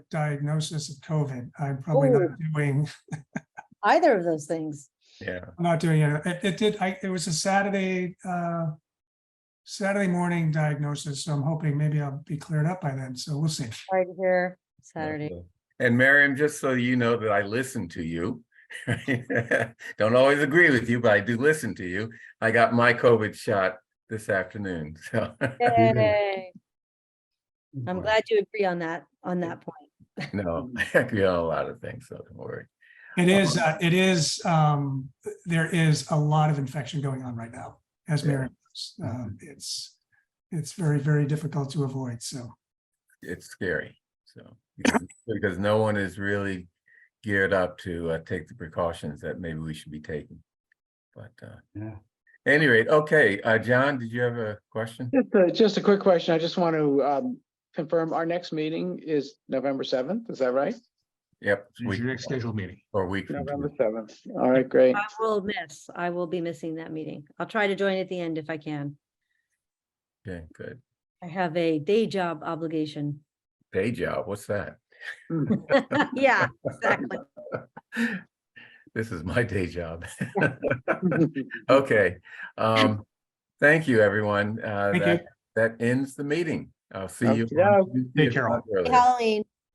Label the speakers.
Speaker 1: diagnosis of COVID. I'm probably
Speaker 2: Oh.
Speaker 1: not doing,
Speaker 2: either of those things.
Speaker 3: Yeah,
Speaker 1: I'm not doing it. It, it did, I, it was a Saturday, uh, Saturday morning diagnosis, so I'm hoping maybe I'll be cleared up by then, so we'll see.
Speaker 2: Right here, Saturday.
Speaker 3: lovely. And Miriam, just so you know that I listen to you. Don't always agree with you, but I do listen to you. I got my COVID shot this afternoon, so.
Speaker 2: Yay. I'm glad you agree on that, on that point.
Speaker 3: No, I agree on a lot of things, so don't worry.
Speaker 1: It is, uh, it is, um, there is a lot of infection going on right now, as
Speaker 3: Yeah.
Speaker 1: Mary, knows. Um, it's, it's very, very difficult to avoid, so.
Speaker 3: It's scary, so. because- Because no one is really geared up to uh, take the precautions that maybe we should be taking. But, uh,
Speaker 4: Yeah.
Speaker 3: any rate, okay, uh, John, did you have a question?
Speaker 4: Just a- Just a quick question. I just want to um, confirm, our next meeting is November 7th, is that right?
Speaker 3: Yep. it's
Speaker 5: It's
Speaker 3: week-
Speaker 5: your next scheduled meeting.
Speaker 3: Or a week. from
Speaker 4: November
Speaker 3: today.
Speaker 4: 7th. All right, great.
Speaker 2: I will miss, I will be missing that meeting. I'll try to join at the end if I can.
Speaker 3: Okay, good.
Speaker 2: I have a day job obligation.
Speaker 3: Day job, what's that?
Speaker 2: Yeah, exactly.
Speaker 3: This is my day job. Okay, um, thank you, everyone. Uh,
Speaker 1: Thank you.
Speaker 3: that, that ends the meeting. I'll see you.
Speaker 4: Okey-doke.
Speaker 3: on Tuesday,
Speaker 5: Take
Speaker 3: if
Speaker 5: care all.
Speaker 3: not earlier.
Speaker 2: Halloween.